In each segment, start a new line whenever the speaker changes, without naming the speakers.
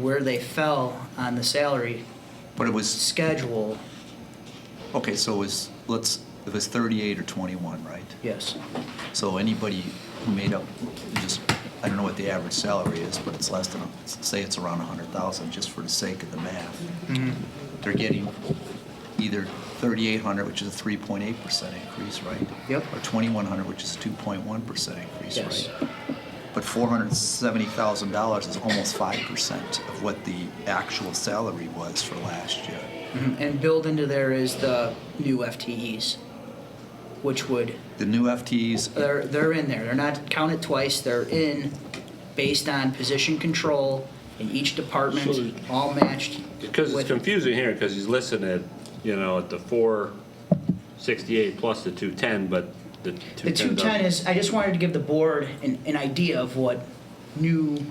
where they fell on the salary
But it was,
schedule,
okay, so it was, let's, it was 38 or 21, right?
yes.
So anybody who made up, just, I don't know what the average salary is, but it's less than, say it's around 100,000, just for the sake of the math.
Mhm.
They're getting either 3,800, which is a 3.8% increase, right?
Yep.
Or 2,100, which is a 2.1% increase,
Yes.
right? But $470,000 is almost 5% of what the actual salary was for last year.
Mhm. And built into there is the new FTEs, which would,
The new FTEs,
they're, they're in there. They're not counted twice, they're in based on position control in each
So-
department, all matched.
Because
with-
it's confusing here, because he's listed at, you know, at the four sixty-eight plus the two ten, but the
The
two ten.
210 is, I just wanted to give the board an, an idea of what new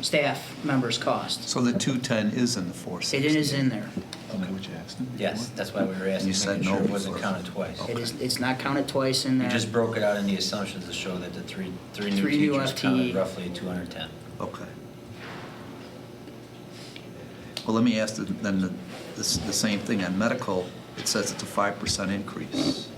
staff members cost.
so the 210 is in the 460.
It is in there.
Okay, what you asked him?
Yes, that's why we were asking,
You said
making sure
no
it wasn't
before.
counted twice.
It is, it's not counted twice in
We
there.
just broke it out in the assumptions to show that the three, three new
Three new E.
teachers
FTE.
counted roughly 210.
Okay. Well, let me ask the- then the, the s- the same thing on medical. It says it's a 5% increase.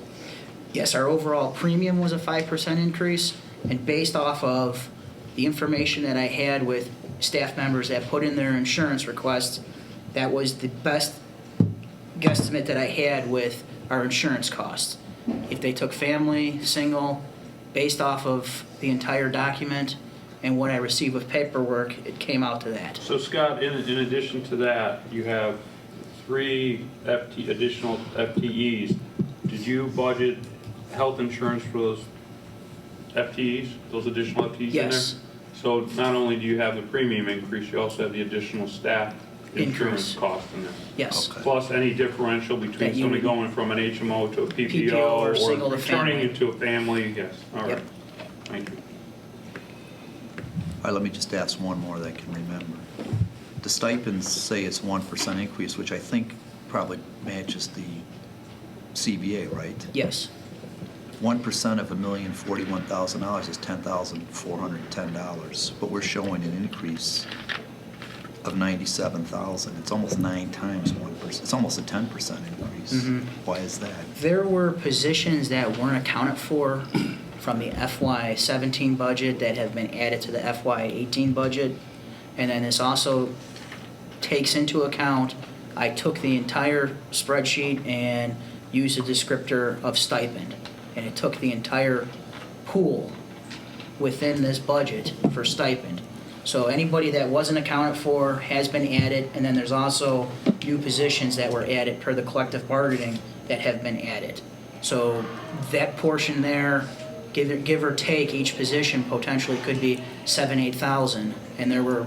Yes, our overall premium was a five percent increase, and based off of the information that I had with staff members that put in their insurance requests, that was the best guesstimate that I had with our insurance costs. If they took family, single, based off of the entire document and what I received with paperwork, it came out to that.
So Scott, in, in addition to that, you have three FT, additional FTEs. Did you budget health insurance for those FTEs, those additional FTEs in there?
Yes.
So not only do you have the premium increase, you also have the additional staff
Increase.
insurance cost in there.
Yes,
Okay.
Plus any differential
That
between
you would-
somebody going from an HMO to a PPO
PPO or single
or
to
returning
family.
it to a family, yes, all
Yep.
right. Thank you.
All right, let me just ask one more that I can remember. The stipends say it's 1% increase, which I think probably matches the CBA, right?
yes,
1% of $1,041,000 is $10,410, but we're showing an increase of 97,000. It's almost nine times 1%. It's almost a 10% increase.
Mhm.
Why is that?
There were positions that weren't accounted for from the FY seventeen budget that have been added to the FY eighteen budget. And then this also takes into account, I took the entire spreadsheet and used a descriptor of stipend. And it took the entire pool within this budget for stipend. So anybody that wasn't accounted for has been added, and then there's also new positions that were added per the collective bargaining that have been added. So that portion there, give, give or take, each position potentially could be seven, eight thousand. And there were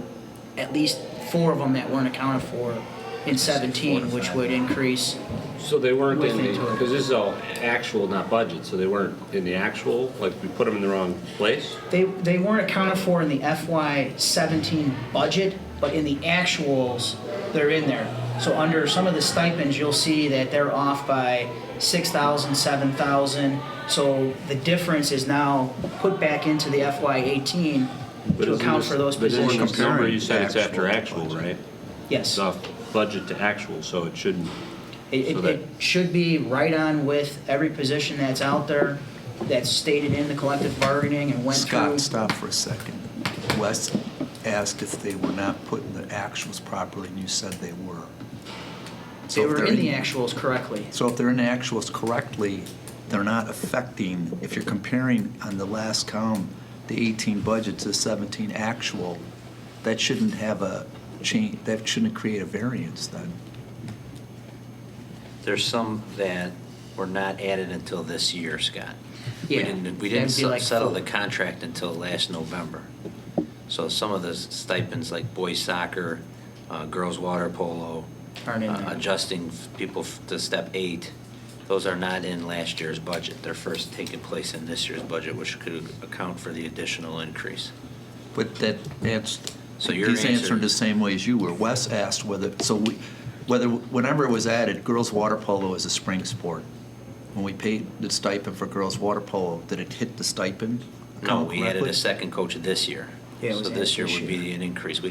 at least four of them that weren't accounted for in seventeen, which would increase,
So they weren't in the,
Within total.
because this is all actual, not budget, so they weren't in the actual, like, we put them in the wrong place?
They, they weren't accounted for in the FY seventeen budget, but in the actuals, they're in there. So under some of the stipends, you'll see that they're off by six thousand, seven thousand. So the difference is now put back into the FY eighteen
But
to
isn't
account
this-
for those
but isn't
positions.
this number, you
Comparing
said it's after
actual to
actual, right?
budget.
Yes,
It's
it,
off budget to actual, so it shouldn't,
it,
so that-
it should be right on with every position that's out there, that's stated in the collective bargaining and went through.
Scott, stop for a second. Wes asked if they were not putting the actuals properly, and you said they were. So
They
if
were
they're
in the actuals correctly.
So if they're in the actuals correctly, they're not affecting, if you're comparing on the last column, the 18 budget to 17 actual, that shouldn't have a change, that shouldn't create a variance then.
There's some that were not added until this year, Scott. We
Yeah,
didn't, we didn't
that'd be like
se- settle
four.
the contract until last November. So some of the stipends, like boys soccer, uh, girls water polo,
Aren't in
uh,
there.
adjusting f- people f- to step eight, those are not in last year's budget. They're first taking place in this year's budget, which could account for the additional increase.
But that, that's,
So your
he's
answer-
answering the same way as you were. Wes asked whether, so we, whether, whenever it was added, girls' water polo is a spring sport. When we paid the stipend for girls' water polo, did it hit the stipend?
No,
account
we added
correctly?
a second coach this year.
Yeah, it was
So
added
this year
this
would be
year.
an increase. We